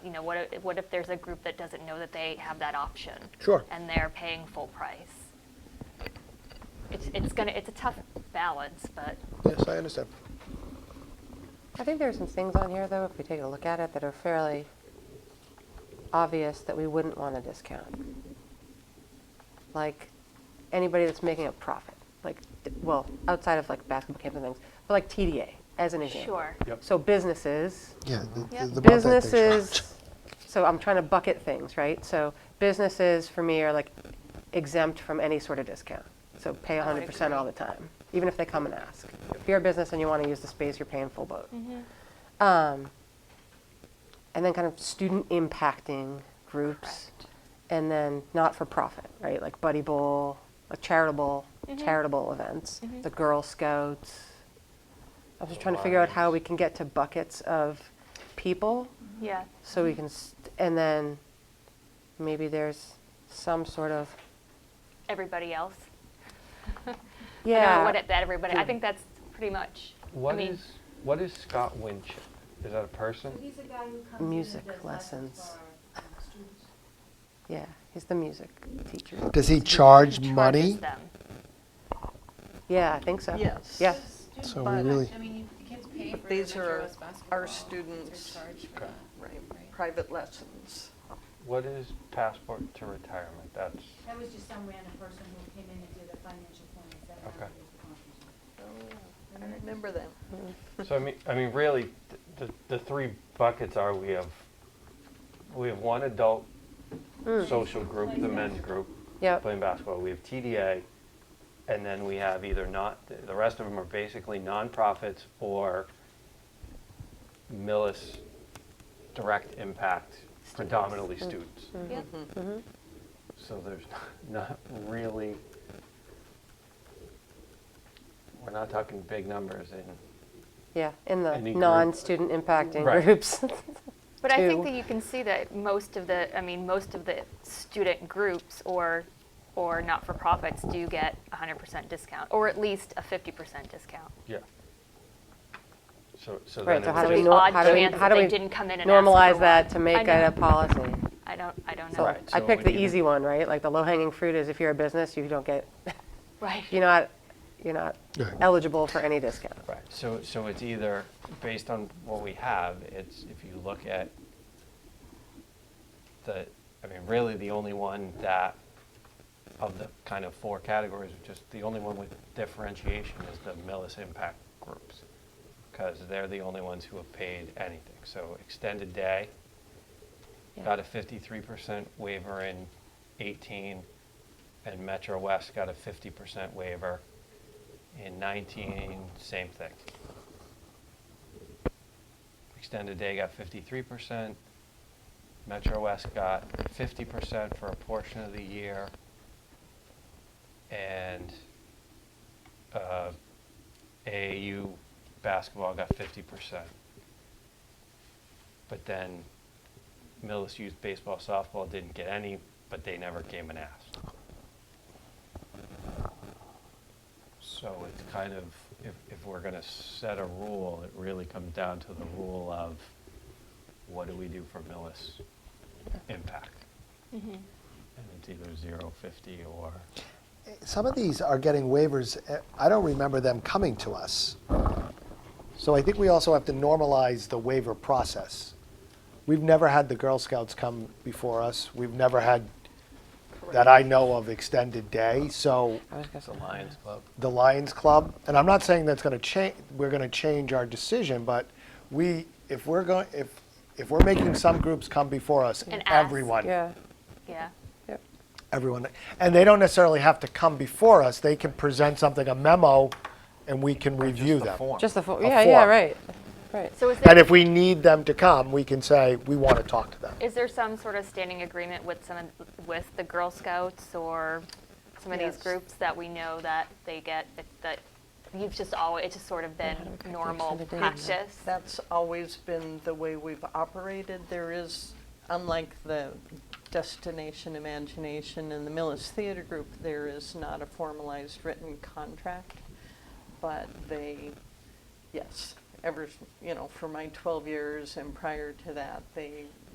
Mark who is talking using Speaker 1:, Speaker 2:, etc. Speaker 1: you know, what if, what if there's a group that doesn't know that they have that option?
Speaker 2: Sure.
Speaker 1: And they're paying full price. It's, it's gonna, it's a tough balance, but
Speaker 2: Yes, I understand.
Speaker 3: I think there are some things on here, though, if we take a look at it, that are fairly obvious that we wouldn't want to discount. Like, anybody that's making a profit, like, d- well, outside of like basketball camps and things, but like TDA, as an example.
Speaker 1: sure.
Speaker 3: So businesses,
Speaker 2: Yeah.
Speaker 1: Yep. the
Speaker 3: businesses, so I'm trying to bucket things, right? So businesses, for me, are like exempt from any sort of discount. So pay
Speaker 1: I would
Speaker 3: 100% all the
Speaker 1: agree.
Speaker 3: time, even if they come and ask. If you're a business and you want to use the space, you're paying full boat.
Speaker 1: Mm-hmm.
Speaker 3: Um, and then kind of student impacting groups, and then not for profit, right? Like Buddy Bowl, like charitable
Speaker 1: Mm-hmm.
Speaker 3: charitable events, the Girl Scouts. I was just trying to figure out how we can get to buckets of people,
Speaker 1: Yeah,
Speaker 3: so we can, st- and then maybe there's some sort of
Speaker 1: everybody else. I don't know
Speaker 3: yeah.
Speaker 1: what it- that everybody, I think that's pretty much, I
Speaker 4: What
Speaker 1: mean,
Speaker 4: is what is Scott Winship? Is that a person?
Speaker 5: He's a guy who comes in and
Speaker 3: Music
Speaker 5: does
Speaker 3: lessons.
Speaker 5: for, um, students.
Speaker 3: yeah, he's the music teacher.
Speaker 2: Does he charge
Speaker 1: charges
Speaker 2: money?
Speaker 1: them.
Speaker 3: Yeah, I think so.
Speaker 6: Yes.
Speaker 3: Yeah.
Speaker 5: Student
Speaker 2: So
Speaker 6: we
Speaker 5: contact.
Speaker 2: really-
Speaker 5: I mean, you- the kids pay for
Speaker 6: These
Speaker 5: the
Speaker 6: are
Speaker 5: Joe's basketball.
Speaker 6: our
Speaker 5: They're
Speaker 6: students.
Speaker 5: charged for
Speaker 4: Okay.
Speaker 5: that.
Speaker 6: Right, private lessons.
Speaker 4: What is passport to retirement? That's
Speaker 5: That was just some random person who came in and did a financial plan. Is that how
Speaker 4: Okay.
Speaker 5: it was accomplished?
Speaker 6: I remember them.
Speaker 4: so. I mean, I mean, really, th- the the three buckets are we have we have one adult social group, the men's group
Speaker 3: Hmm. Mm. Yep.
Speaker 4: playing basketball. We have TDA, and then we have either not the- the rest of them are basically nonprofits or Millis direct impact, predominantly students.
Speaker 3: Mm-hmm.
Speaker 1: Yep.
Speaker 4: So there's not really, we're not talking big numbers in,
Speaker 3: Yeah, in the
Speaker 4: Any group.
Speaker 3: non-student impacting
Speaker 4: Right.
Speaker 3: groups.
Speaker 1: But I think
Speaker 3: too.
Speaker 1: that you can see that most of the, I mean, most of the student groups or, or not-for-profits do get a hundred percent discount, or at least a fifty percent discount.
Speaker 4: yeah. So, so then
Speaker 3: Right,
Speaker 4: it
Speaker 3: so
Speaker 4: would
Speaker 3: how do
Speaker 1: There's
Speaker 3: we,
Speaker 4: just-
Speaker 3: nor-
Speaker 1: odd
Speaker 3: how do we,
Speaker 1: chance
Speaker 3: how
Speaker 1: that
Speaker 3: do we
Speaker 1: they didn't come in and ask
Speaker 3: normalize
Speaker 1: for
Speaker 3: that
Speaker 1: one.
Speaker 3: to
Speaker 1: I
Speaker 3: make
Speaker 1: know.
Speaker 3: it a policy?
Speaker 1: I don't, I don't know.
Speaker 3: So
Speaker 4: Right,
Speaker 3: I
Speaker 4: so
Speaker 3: picked
Speaker 4: we
Speaker 3: the
Speaker 4: need to-
Speaker 3: easy one, right? Like the low-hanging fruit is if you're a business, you don't get,
Speaker 1: Right.
Speaker 3: you're not, you're not
Speaker 2: Yeah.
Speaker 3: eligible for any discount.
Speaker 4: Right, so, so it's either, based on what we have, it's, if you look at the, I mean, really the only one that, of the kind of four categories, just the only one with differentiation is the Millis Impact Groups. Because they're the only ones who have paid anything. So extended day,
Speaker 3: Yeah.
Speaker 4: got a fifty-three percent waiver in eighteen, and Metro West got a fifty percent waiver in nineteen, same thing. Extended day got fifty-three percent, Metro West got fifty percent for a portion of the year, and, uh, AAU basketball got fifty percent. But then Millis Youth Baseball Softball didn't get any, but they never came and asked. So it's kind of, if, if we're gonna set a rule, it really comes down to the rule of what do we do for Millis impact? And it's either zero, fifty, or,
Speaker 2: Some of these are getting waivers. eh, I don't remember them coming to us. So I think we also have to normalize the waiver process. We've never had the Girl Scouts come before us. We've never had, that I know of, extended day. So
Speaker 4: it's a Lions Club.
Speaker 2: the Lions Club, and I'm not saying that's going to change. We're going to change our decision, but we, if we're going, if if we're making some groups come before us,
Speaker 1: And ask.
Speaker 2: everyone,
Speaker 3: Yeah,
Speaker 1: Yeah.
Speaker 3: yep.
Speaker 2: everyone, and they don't necessarily have to come before us. They can present something, a memo, and we can review them.
Speaker 3: Just the, fo-
Speaker 2: A
Speaker 3: yeah, yeah,
Speaker 2: form.
Speaker 3: right, right.
Speaker 1: So is
Speaker 2: And
Speaker 1: there,
Speaker 2: if we need them to come, we can say we want to talk to them.
Speaker 1: is there some sort of standing agreement with some, of- with the Girl Scouts or some of these
Speaker 6: Yes.
Speaker 1: groups that we know that they get, that you've just always, it's just sort of been normal
Speaker 3: extended day?
Speaker 1: practice?
Speaker 6: That's always been the way we've operated. There is, unlike the Destination Imagination and the Millis Theater Group, there is not a formalized written contract, but they, yes, ever, s- you know, for my 12 years and prior to that, they